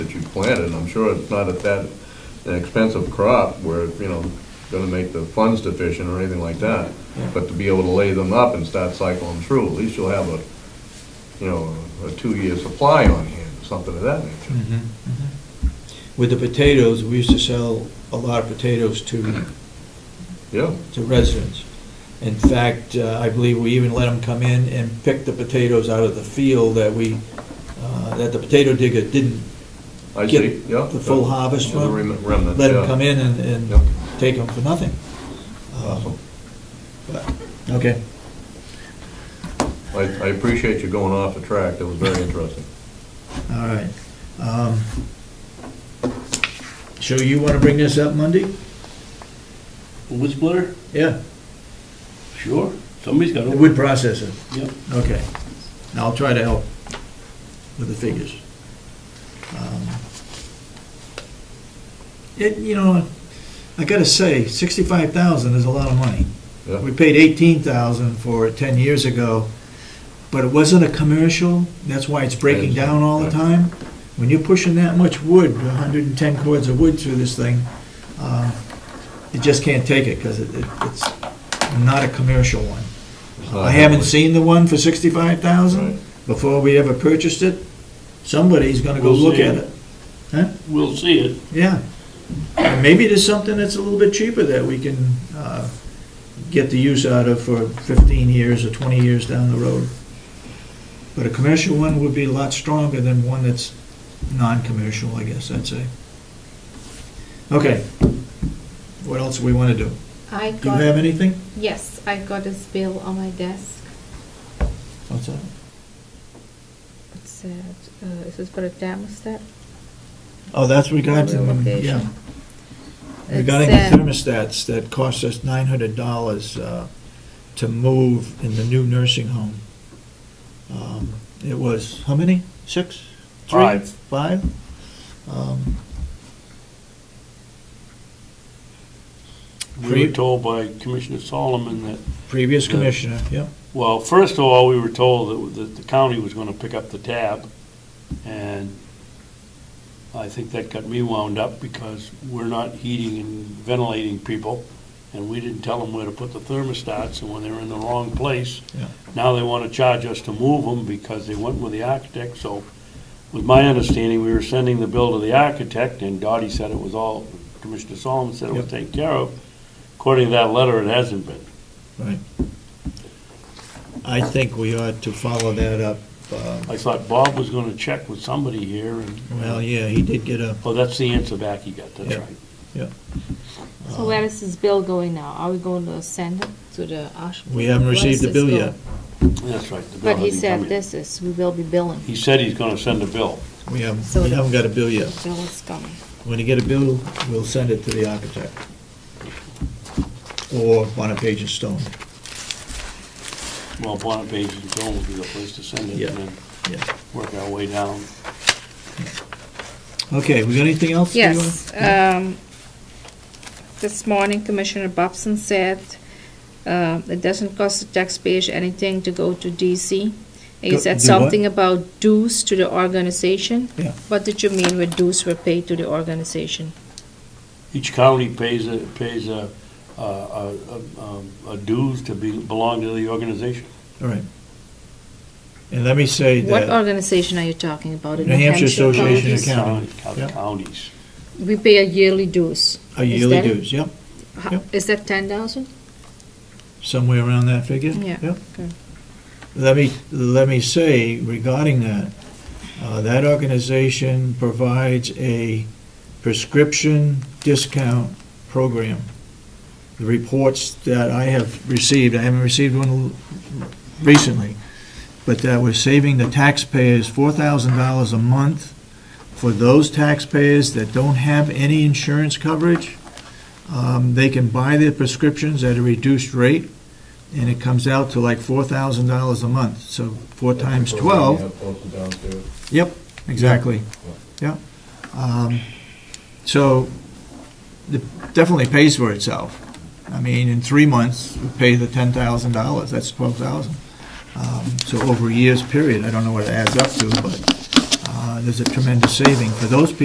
planted. I'm sure it's not at that an expensive crop where, you know, gonna make the funds deficient or anything like that. But to be able to lay them up and start cycling through, at least you'll have a, you know, a two-year supply on hand, something of that nature. mm-hmm. With the potatoes, we used to sell a lot of potatoes to, Yeah, to residents. In fact, uh, I believe we even let them come in and pick the potatoes out of the field that we, uh, that the potato digger didn't I Get see, yeah. the full harvest The from- rem- Remnant, let them yeah. come in and, Yep. and take them for nothing. Awesome. Okay. I, I appreciate you going off the track, that was very interesting. All right. Um, So you want to bring this up Monday? Wood splitter? Yeah, Sure. Somebody's got the to. wood processor. Yep. Okay. Now I'll try to help with the figures. Um, It, you know, I gotta say, sixty-five thousand is a lot of money. Yeah. We paid eighteen thousand for it ten years ago, but it wasn't a commercial, that's why it's breaking down all the time. When you're pushing that much wood, hundred and ten cords of wood through this thing, uh, you just can't take it, because it, it- it's not a commercial one. It's not I haven't heavily- seen the one for sixty-five Uh, Right. thousand before we ever purchased it. Somebody's gonna go We'll look see. at it, We'll see it. yeah. And maybe there's something that's a little bit cheaper that we can, uh, get the use out of for fifteen years or twenty years down the road. But a commercial one would be a lot stronger than one that's non-commercial, I guess I'd say. Okay. What else we wanna do? I Do you got, have anything? yes, I got this bill on my desk. What's that? It said, uh, this is for a thermostat. Oh, that's regarding, Relocation. yeah. It Regarding the said- thermostats, that cost us nine hundred dollars uh, to move in the new nursing home. Um, It was, how many? Six? Three? Five. Five? Um, We were told by Commissioner Solomon that, Previous Yeah. commissioner, yep. well, first of all, we were told that, that the county was going to pick up the tab. And I think that got me wound up because we're not heating and ventilating people. And we didn't tell them where to put the thermostats and when they were in the wrong place. Yeah. Now they want to charge us to move them because they went with the architect, so with my understanding, we were sending the bill to the architect, and Dottie said it was all, Commissioner Solomon said it was Yep. taken care of. According to that letter, it hasn't been. Right. I think we ought to follow that up. um, I thought Bob was gonna check with somebody here, Well, and, yeah, he did get a, oh, that's the answer back he got, that's Yeah. right. So where is this bill going now? Are we going to send it to the Ash? we haven't Where is received the this bill going? yet. That's right. the bill But he hasn't come said yet. this is, we will be billing. He said he's gonna send a bill. We haven't, So we the- haven't got a bill The yet. bill is coming. When you get a bill, we'll send it to the architect. Or Bonapage and Stone, Well, Bonapage and Joan will be the place to send it, Yeah. and then yeah. work our way down. Okay, we got anything else? we wanna- Yes, Yeah. um, this morning Commissioner Bobson said, uh, it doesn't cost the taxpayers anything to go to DC. He Do- said do what? something about dues to the organization. Yeah. What did you mean with dues were paid to the organization? Each county pays a, pays a, a- a, um, a- a dues to be, belong to the organization. All right. And let me say What that, organization are you talking about? The New Hampshire Association of Counties? County. County- Yeah. Counties. We pay a yearly dues. a Is yearly that it? dues, yep, Ho- Yeah. Is that ten thousand? somewhere around that figure? Yeah, Yep. okay. Let me, let me say regarding that, uh, that organization provides a prescription discount program. The reports that I have received, I haven't received one recently, but that we're saving the taxpayers $4,000 a month for those taxpayers that don't have any insurance coverage. Um, They can buy their prescriptions at a reduced rate, and it comes out to like $4,000 a month. So four times 12, Yeah, posted downstairs. Yep, exactly. Yeah. Um, So it definitely pays for itself. I mean, in three months, we pay the ten thousand dollars, that's twelve thousand. Um, So over a year's period, I don't know what it adds up to, but uh, there's a tremendous saving for those people